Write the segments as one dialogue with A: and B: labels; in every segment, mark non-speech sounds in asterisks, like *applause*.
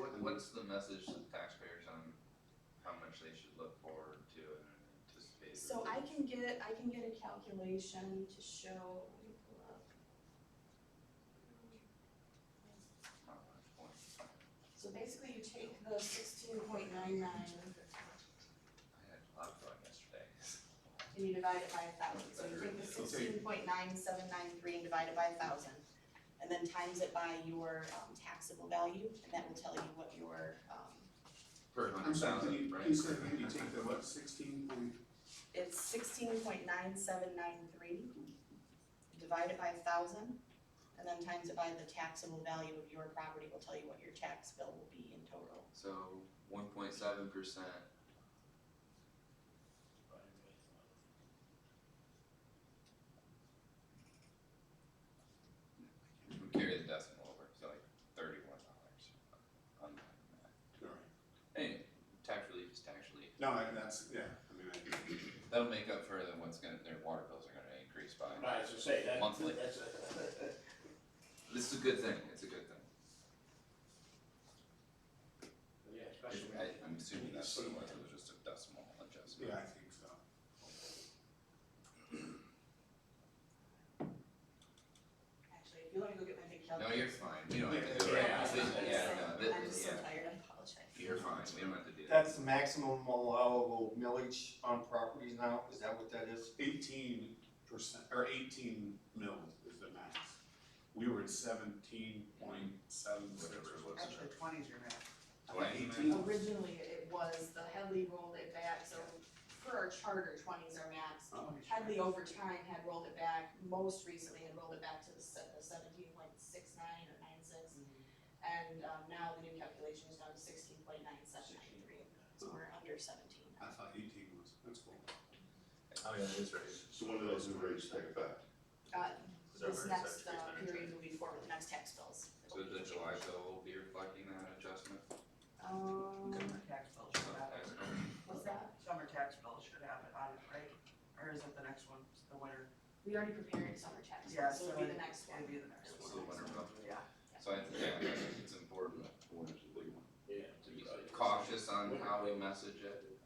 A: Mm-hmm.
B: what's the message to the taxpayers on how much they should look forward to and anticipate?
C: So I can get, I can get a calculation to show, let me pull up.
B: How much point?
C: So basically you take the sixteen point nine nine
B: I had a lot going yesterday.
A: *laughs*
C: and you divide it by a thousand, so you take the
B: Okay.
C: sixteen point nine seven nine three and divide it by a thousand. And then times it by your um, taxable value, and that will tell you what your, um,
B: Per
A: I'm
B: hundred
A: sorry, can
B: thousand,
A: you,
B: right?
A: you said maybe take the what, sixteen point,
C: it's sixteen point nine seven nine three. Divide it by a thousand, and then times it by the taxable value of your property will tell you what your tax bill will be in total.
B: So one point seven percent, we carry the decimal over, so like thirty-one dollars.
A: alright,
B: Anyway, tax relief is tax relief.
A: no, I- that's, yeah, I mean, I,
B: That'll make up for the what's gonna, their water bills are gonna increase by.
D: Right, as I say, that,
B: Monthly.
D: that's a,
B: This is a good thing, it's a good thing.
D: yeah, especially.
B: I, I'm assuming that's what it was, it was just a decimal adjustment.
A: yeah, I think so.
C: Actually, if you wanna go get my big calculator.
B: No, you're fine, we don't have to do it.
D: Yeah,
B: This is-
D: I-
B: Yeah, no,
C: I'm just
B: this,
C: so
B: yeah,
C: tired, I apologize.
B: you're fine, we don't have to do that.
E: That's the maximum allowable millage on properties now, is that what that is?
A: Eighteen percent, or eighteen mil is the max. We were at seventeen point seven six
B: Whatever it
A: or
B: was.
A: whatever.
F: Actually, twenties are max.
B: Twenty,
A: Eighteen,
C: Originally, it was, the Headley rolled it back, so for our charter, twenties are max.
A: oh,
C: Headley over time had rolled it back, most recently had rolled it back to the seventeen point six nine or nine six. And, um, now the new calculation is down to sixteen point nine seven nine three, so we're under seventeen
A: I
C: now.
A: thought eighteen was, that's cool.
G: Oh, yeah, it is raised.
H: So when do those new rates take effect?
C: Uh,
G: Is that
C: this
G: right?
C: next,
G: Is that
C: uh,
G: right?
C: period will be for the next tax bills.
B: so the July bill will be reflecting that adjustment,
C: Um,
F: Summer tax bill
B: so
F: should have it.
B: tax bill.
C: what's that?
F: Summer tax bill should have it on it, right? Or is it the next one, the winter?
C: We already prepared summer tax,
F: Yeah,
C: so it'll
F: so
C: be the next one.
F: It'd be the next
B: So
F: one.
B: the winter bill.
F: Yeah.
B: So I, yeah, I think it's important
D: Yeah.
B: to be cautious on how we message it.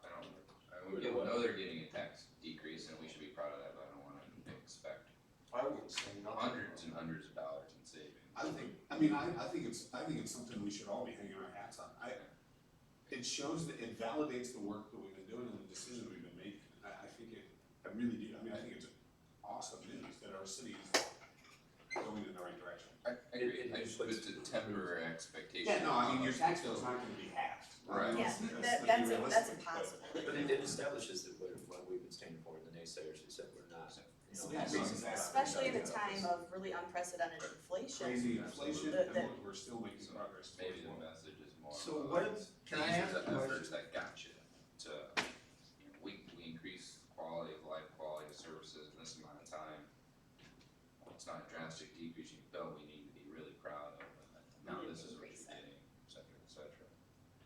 B: I don't, I mean, we don't know they're getting a tax decrease and we should be proud of that, but I don't wanna expect
E: I wouldn't say nothing.
B: hundreds and hundreds of dollars in savings.
A: I think, I mean, I, I think it's, I think it's something we should all be hanging our hats on. I, it shows that it validates the work that we've been doing and the decisions we've been making. I, I think it, I really do, I mean, I think it's awesome news that our city is going in the right direction.
B: I, I agree, I just, it's a temporary expectation.
A: Yeah, no, I mean, your tax bill's not gonna be halved.
B: Right.
C: Yeah, that, that's, a- that's impossible.
G: But it, it establishes that what, what we've been standing for, and the naysayers who said we're not, you know.
A: So that's
G: we're-
A: exactly-
C: Especially in a time of really unprecedented inflation.
A: Crazy inflation,
C: The-
A: and
C: the-
A: look, we're still making progress towards
B: Maybe
A: one.
B: the message is more.
E: So
B: of,
E: what
B: uh,
E: if- can I
B: these are
E: ask
B: the
E: a question?
B: efforts That got you to, you know, we, we increase quality of life, quality of services in this amount of time. Well, It's not a drastic decrease in bill, we need to be really proud of, and now this is what you're
C: Increase it.
B: getting, et cetera, et cetera.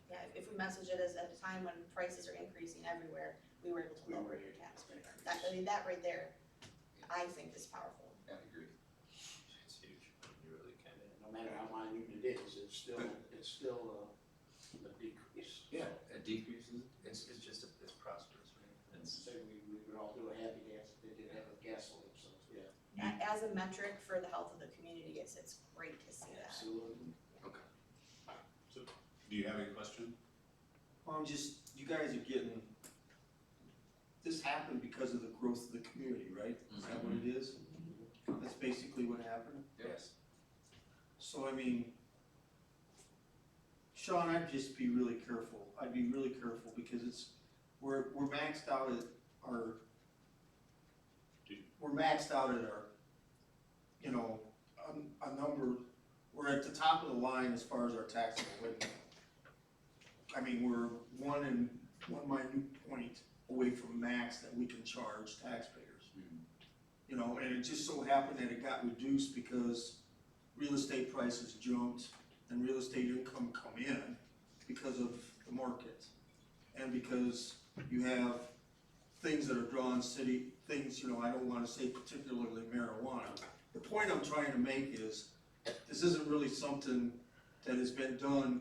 C: Yeah, if- if we message it as at a time when prices are increasing everywhere, we were able to lower your tax rate. That, I mean, that right there, I think is powerful.
B: Yeah, I agree.
G: It's huge, you really can.
D: No matter how minute it is, it's still, it's still uh, a decrease.
B: Yeah, a decrease is,
G: It's, it's just, a- it's prosperous, right? It's,
D: Say we, we would all do a happy dance, if they did that with gasoline, so, yeah.
C: A- As a metric for the health of the community, it's, it's great to see that.
D: Absolutely.
A: Do you have any question?
E: Well, I'm just, you guys are getting, this happened because of the growth of the community, right? Is that what it is?
G: Mm-hmm.
E: That's basically what happened.
B: yes,
E: So I mean, Sean, I'd just be really careful. I'd be really careful because it's, we're, we're maxed out at our, we're maxed out at our, you know, a, a number, we're at the top of the line as far as our taxable rate. I mean, we're one and, one minute point away from max that we can charge taxpayers.
B: Hmm.
E: You know, and it just so happened that it got reduced because real estate prices jumped and real estate income come in because of the market. And because you have things that are drawing city, things, you know, I don't wanna say particularly marijuana. The point I'm trying to make is, this isn't really something that has been done